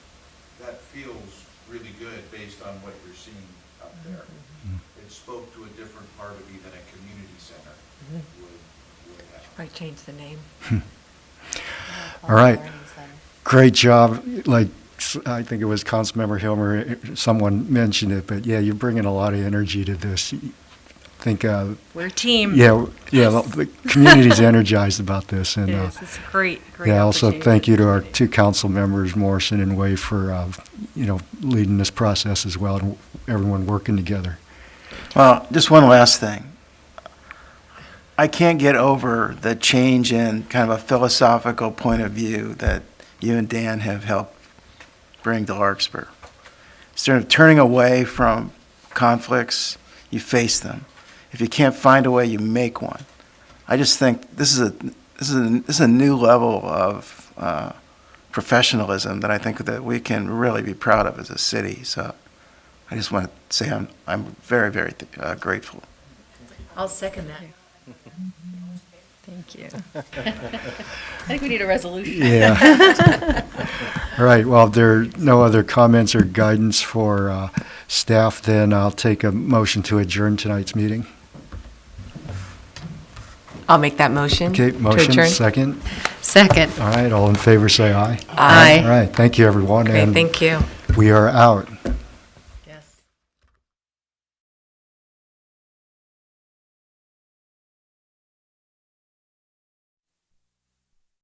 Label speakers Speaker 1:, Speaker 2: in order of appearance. Speaker 1: that feels really good based on what you're seeing up there. It spoke to a different part of even a community center would, would have.
Speaker 2: Probably change the name.
Speaker 3: All right.
Speaker 4: Learning Center.
Speaker 3: Great job. Like, s- I think it was Councilmember Hilmer, someone mentioned it, but yeah, you're bringing a lot of energy to this. I think, uh,
Speaker 5: We're a team.
Speaker 3: yeah, yeah, the the community's energized about this.
Speaker 5: It
Speaker 3: and uh,
Speaker 5: is. It's a great, great
Speaker 3: Yeah, also
Speaker 5: opportunity.
Speaker 3: thank you to our two council members, Morrison and Way, for, uh, you know, leading this process as well and everyone working together.
Speaker 6: Well, just one last thing. I can't get over the change in kind of a philosophical point of view that you and Dan have helped bring to Larkspur. Instead of turning away from conflicts, you face them. If you can't find a way, you make one. I just think this is a this is a, this is a new level of uh, professionalism that I think that we can really be proud of as a city. So I just want to say I'm I'm very very uh, grateful.
Speaker 4: I'll second that.
Speaker 5: Thank you.
Speaker 4: I think we need a resolution.
Speaker 3: Yeah. All right, well, if there are no other comments or guidance for uh, staff, then I'll take a motion to adjourn tonight's meeting.
Speaker 2: I'll make that motion.
Speaker 3: Okay,
Speaker 2: to
Speaker 3: motion,
Speaker 2: adjourn.
Speaker 3: second.
Speaker 4: Second.
Speaker 3: All right, all in favor, say aye.
Speaker 2: Aye.
Speaker 3: All right, thank you, everyone.
Speaker 2: Great,
Speaker 3: and
Speaker 2: thank you.
Speaker 3: We are out.